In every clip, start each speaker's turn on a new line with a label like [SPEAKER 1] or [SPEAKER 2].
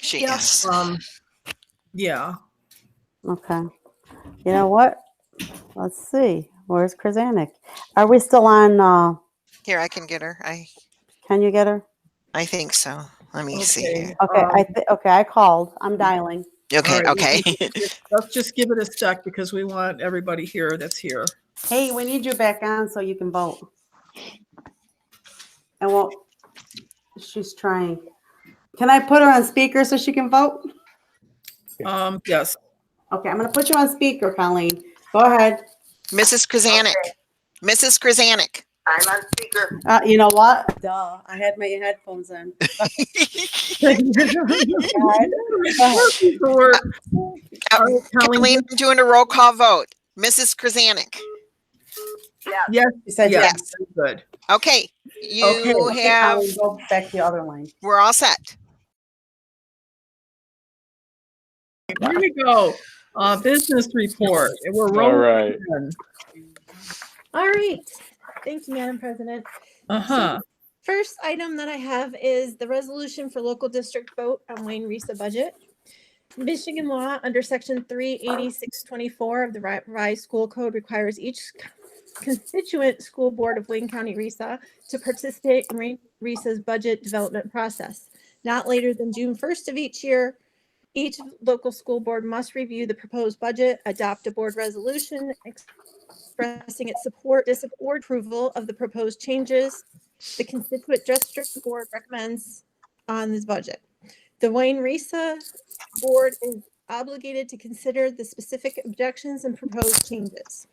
[SPEAKER 1] she
[SPEAKER 2] Yeah.
[SPEAKER 1] is.
[SPEAKER 2] Um, yeah.
[SPEAKER 3] Okay. You know what? Let's see. Where's Krasanik? Are we still on? Uh,
[SPEAKER 1] Here, I can get her. I
[SPEAKER 3] can you get her?
[SPEAKER 1] I think so. Let me see. here.
[SPEAKER 3] Okay.
[SPEAKER 2] Uh, Um,
[SPEAKER 3] I th- okay. I called. I'm dialing.
[SPEAKER 1] Okay,
[SPEAKER 2] All right,
[SPEAKER 1] okay.
[SPEAKER 2] we can just- Let's just give it a sec because we want everybody here that's here.
[SPEAKER 3] Hey, we need you back on so you can vote. And well, she's trying. Can I put her on speaker so she can vote?
[SPEAKER 2] Um, yes.
[SPEAKER 3] Okay, I'm gonna put you on speaker, Colleen. Go ahead.
[SPEAKER 1] Mrs. Krasanik. Mrs. Krasanik.
[SPEAKER 4] I'm on speaker.
[SPEAKER 3] Uh, you know what? Duh, I had my headphones on.
[SPEAKER 2] Or-
[SPEAKER 1] Uh,
[SPEAKER 2] All right, Colleen,
[SPEAKER 1] Colleen, I'm doing a roll call vote. Mrs. Krasanik.
[SPEAKER 2] Yes,
[SPEAKER 3] You said
[SPEAKER 2] yes,
[SPEAKER 3] yes.
[SPEAKER 2] good.
[SPEAKER 1] Okay,
[SPEAKER 3] Okay,
[SPEAKER 1] you
[SPEAKER 3] okay,
[SPEAKER 1] have,
[SPEAKER 3] Colleen, Go back to the other line.
[SPEAKER 1] we're all set.
[SPEAKER 2] Here we go. Uh, business report. And We're
[SPEAKER 5] All
[SPEAKER 2] rolling
[SPEAKER 5] right.
[SPEAKER 2] in.
[SPEAKER 6] All right. Thank you, Madam President.
[SPEAKER 2] Uh-huh.
[SPEAKER 6] First item that I have is the resolution for local district vote on Wayne Risa budget. Michigan law under section three eighty-six twenty-four of the Ri- revised school code requires each constituent school board of Wayne County Risa to participate in Wayne Risa's budget development process. Not later than June first of each year, each local school board must review the proposed budget, adopt a board resolution expressing its support, disapproval, or approval of the proposed changes, the constituent district board recommends on this budget. The Wayne Risa board is obligated to consider the specific objections and proposed changes.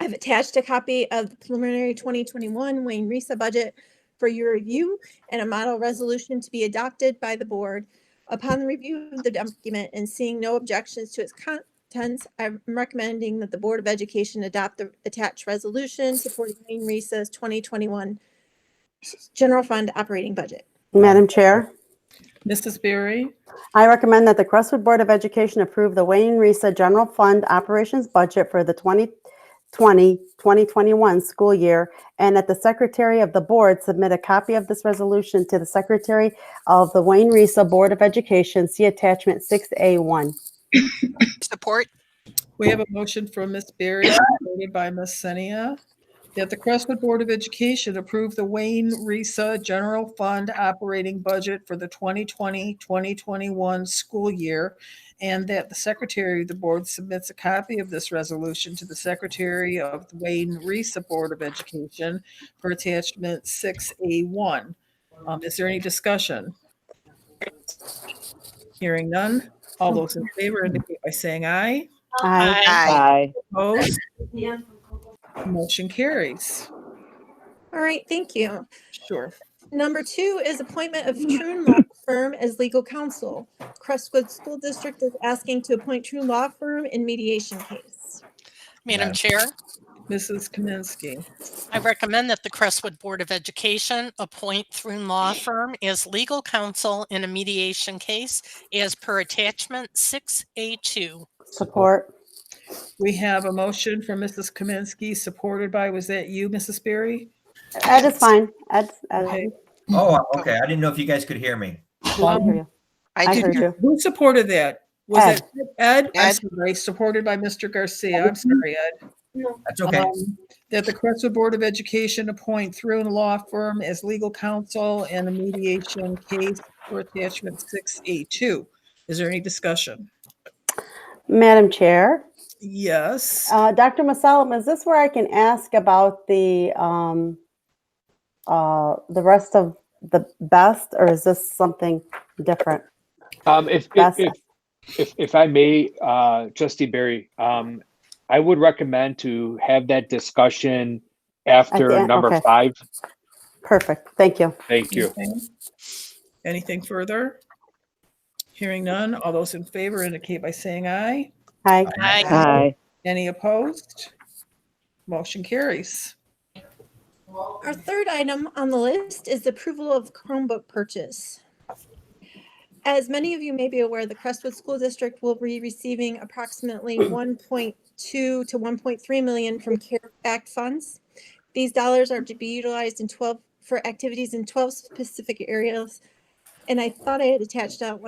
[SPEAKER 6] I've attached a copy of the preliminary 2021 Wayne Risa budget for your review and a model resolution to be adopted by the board. Upon the review of the document and seeing no objections to its contents, I'm recommending that the Board of Education adopt the attached resolution supporting Wayne Risa's 2021 general fund operating budget.
[SPEAKER 3] Madam Chair,
[SPEAKER 2] Mrs. Berry?
[SPEAKER 3] I recommend that the Crestwood Board of Education approve the Wayne Risa General Fund Operations Budget for the 2020-2021 school year, and that the Secretary of the Board submit a copy of this resolution to the Secretary of the Wayne Risa Board of Education, see attachment 6A1.
[SPEAKER 1] Support?
[SPEAKER 2] We have a motion from Ms. Berry, supported by Ms. Senia, that the Crestwood Board of Education approve the Wayne Risa General Fund operating budget for the 2020-2021 school year, and that the Secretary of the Board submits a copy of this resolution to the Secretary of the Wayne Risa Board of Education for attachment 6A1. Um, Is there any discussion? Hearing none. All those in favor indicate by saying aye.
[SPEAKER 3] Aye.
[SPEAKER 1] Aye.
[SPEAKER 2] Opposed? Motion carries.
[SPEAKER 6] All right, thank you.
[SPEAKER 2] Sure.
[SPEAKER 6] Number two is appointment of True Law Firm as legal counsel. Crestwood School District is asking to appoint True Law Firm in mediation case.
[SPEAKER 7] Madam Chair,
[SPEAKER 2] Mrs. Kaminsky.
[SPEAKER 7] I recommend that the Crestwood Board of Education appoint Thrun Law Firm as legal counsel in a mediation case as per attachment 6A2.
[SPEAKER 3] Support.
[SPEAKER 2] We have a motion from Mrs. Kaminsky, supported by, was that you, Mrs. Berry?
[SPEAKER 3] Ed is fine. Ed, Ed.
[SPEAKER 2] Okay.
[SPEAKER 8] Oh, okay. I didn't know if you guys could hear me.
[SPEAKER 3] I hear you. I heard you.
[SPEAKER 2] Who supported that? Was it Ed? I'm
[SPEAKER 1] Ed.
[SPEAKER 2] sorry, supported by Mr. Garcia. I'm sorry, Ed.
[SPEAKER 8] That's okay.
[SPEAKER 2] Um, That the Crestwood Board of Education appoint Thrun Law Firm as legal counsel in a mediation case for attachment 6A2. Is there any discussion?
[SPEAKER 3] Madam Chair,
[SPEAKER 2] Yes.
[SPEAKER 3] uh, Dr. Masalim, is this where I can ask about the, um, uh, the rest of the best, or is this something different?
[SPEAKER 5] Um, if, if,
[SPEAKER 3] That's-
[SPEAKER 5] if, if, if I may, uh, trustee Barry, um, I would recommend to have that discussion
[SPEAKER 3] At the
[SPEAKER 5] after
[SPEAKER 3] end,
[SPEAKER 5] number
[SPEAKER 3] okay.
[SPEAKER 5] five.
[SPEAKER 3] Perfect. Thank you.
[SPEAKER 5] Thank you.
[SPEAKER 2] Okay. Anything further? Hearing none, all those in favor indicate by saying aye.
[SPEAKER 3] Hi.
[SPEAKER 7] Aye.
[SPEAKER 2] Any opposed? Motion carries.
[SPEAKER 6] Our third item on the list is the approval of Chromebook purchase. As many of you may be aware, the Crestwood School District will be receiving approximately 1.2 to 1.3 million from CARE Act funds. These dollars are to be utilized in 12, for activities in 12 specific areas. And I thought I had attached out